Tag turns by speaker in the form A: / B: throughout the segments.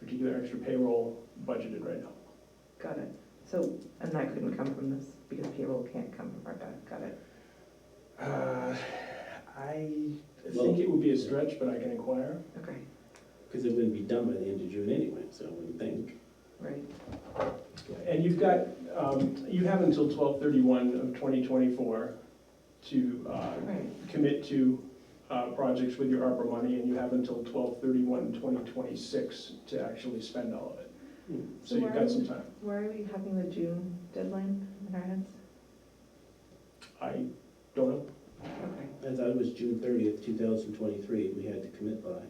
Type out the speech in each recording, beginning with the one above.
A: their extra payroll budgeted right now.
B: Got it. So, and that couldn't come from this because payroll can't come from ARPA. Got it.
A: Uh, I
C: Well-
A: think it would be a stretch, but I can inquire.
B: Okay,
C: Because it wouldn't be done by the end of June anyway, so I wouldn't think.
B: right.
A: And you've got, um, you have until twelve thirty-one of twenty twenty-four to uh,
B: Right.
A: commit to uh, projects with your ARPA money, and you have until twelve thirty-one, twenty twenty-six to actually spend all of it. So you've got some time.
B: Why are we having the June deadline in our heads?
A: I don't know.
B: Okay.
C: I thought it was June thirtieth, two thousand twenty-three, we had to commit by.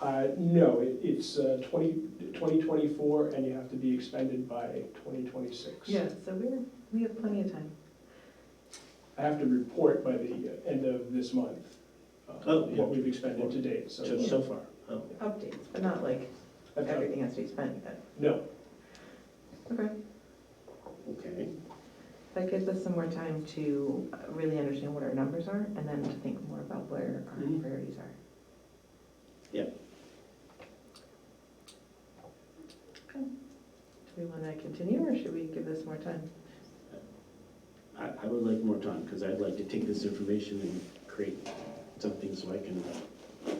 A: Uh, No, it- it's uh, 20 2024, and you have to be expended by 2026.
B: Yeah, so we're, we have plenty of time.
A: I have to report by the uh, end of this month uh,
C: Oh, yeah.
A: what we've expended to date, so.
C: So, so far, oh,
B: Updates, but not like
A: That's not-
B: everything has to be spent yet.
A: No,
B: Okay.
C: okay.
B: That gives us some more time to uh, really understand what our numbers are and then to think more about where our
C: Mhm.
B: priorities are.
C: Yep.
B: Okay. Do we want to continue or should we give this more time?
C: I, I would like more time, because I'd like to take this information and create something so I can uh,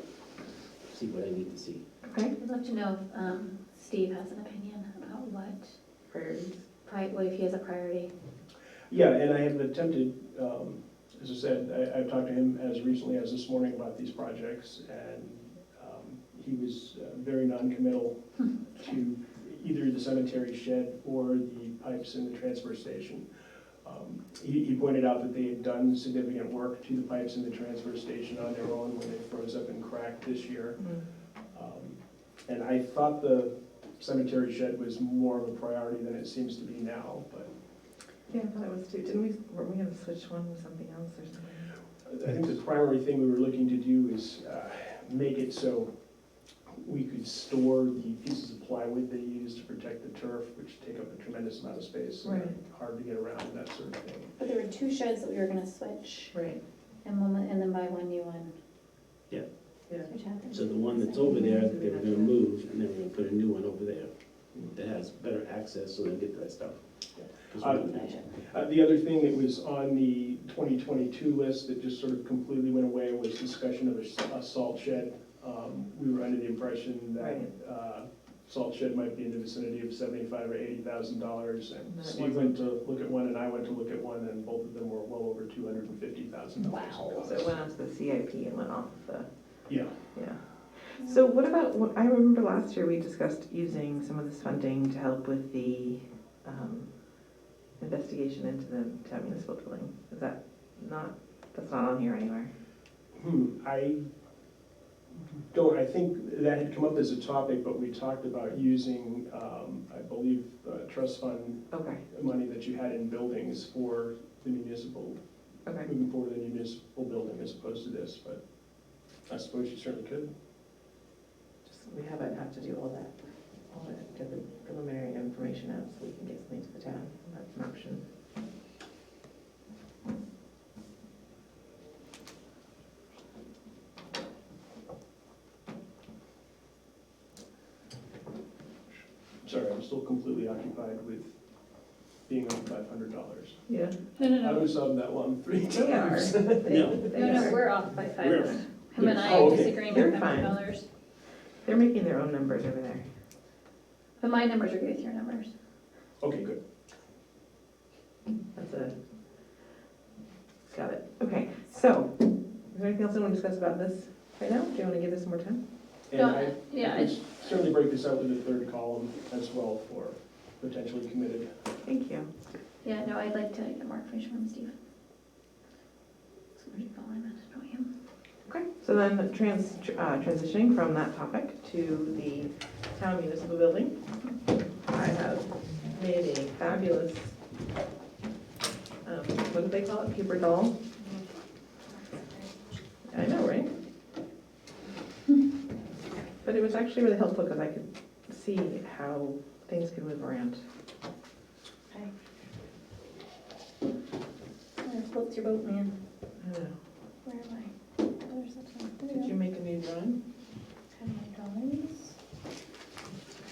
C: see what I need to see.
B: Okay.
D: I'd love to know if um, Steve has an opinion about what,
B: Priorities.
D: pri- what if he has a priority.
A: yeah, and I have attempted, um, as I said, I- I've talked to him as recently as this morning about these projects, and um, he was uh, very noncommittal to either the cemetery shed or the pipes in the transfer station. Um, He, he pointed out that they had done significant work to the pipes in the transfer station on their own when they froze up and cracked this year. Um, And I thought the cemetery shed was more of a priority than it seems to be now, but
B: Yeah, I thought it was too, didn't we, weren't we going to switch one with something else or something?
A: I think the primary thing we were looking to do is uh, make it so we could store the pieces of plywood they use to protect the turf, which take up a tremendous amount of space and are
B: Right.
A: hard to get around and that sort of thing.
D: But there were two sheds that we were gonna switch
B: Right,
D: and one, and then buy one new one.
C: Yeah.
B: Yeah.
D: Which happened.
C: So the one that's over there, they were gonna move, and then we're gonna put a new one over there that has better access so they get that stuff. 'Cause we don't-
D: Gotcha.
A: Uh, The other thing that was on the 2022 list that just sort of completely went away was discussion of a s- a salt shed. Um, We were under the impression that
B: Right.
A: uh, salt shed might be in the vicinity of 75 or 80,000 dollars.
B: And
A: And
B: that
A: Steve went to look at one and I went to look at one and both of them were well over 250,000 dollars.
B: so it went onto the CIP and went off the,
A: Yeah,
B: yeah. So what about, what- I remember last year we discussed using some of this funding to help with the um, investigation into the town municipal building. Is that not, that's not on here anywhere?
A: hmm, I don't, I think that had come up as a topic, but we talked about using, um, I believe, uh, trust fund
B: Okay,
A: money that you had in buildings for the municipal,
B: okay.
A: moving forward with the municipal building as opposed to this, but I suppose you certainly could.
B: Just, we haven't had to do all that, all that, get the preliminary information out so we can get something to the town. That's an option.
A: Sorry, I'm still completely occupied with being on five hundred dollars.
B: Yeah.
D: No, no,
A: I
D: no,
A: was on that one three
B: They are.
A: times.
C: No.
D: no, no, we're off by five
C: We're-
D: hundred. Him and I
A: Oh,
D: are
A: okay.
D: disagreeing
B: You're
D: on the
B: fine.
D: dollars,
B: They're making their own numbers over there.
D: but my numbers are good with your numbers.
A: Okay, good.
B: That's a, got it. Okay, so, is there anything else you want to discuss about this right now? Do you want to give this some more time?
A: And
D: No,
A: I
D: yeah,
A: I could certainly break this out with the third column as well for potentially committed.
B: Thank you.
D: Yeah, no, I'd like to get more information from Steve. So where'd you call him? I don't know him.
B: Okay, so then trans, uh, transitioning from that topic to the town municipal building. I have made a fabulous, um, what do they call it, paper doll? I know, right? But it was actually really helpful because I could see how things could move around.
D: Where- What's your boat, man?
B: I don't know.
D: Where am I? There's the top. There we
B: Did
D: go.
B: you make a new drawing?
D: How do I draw these?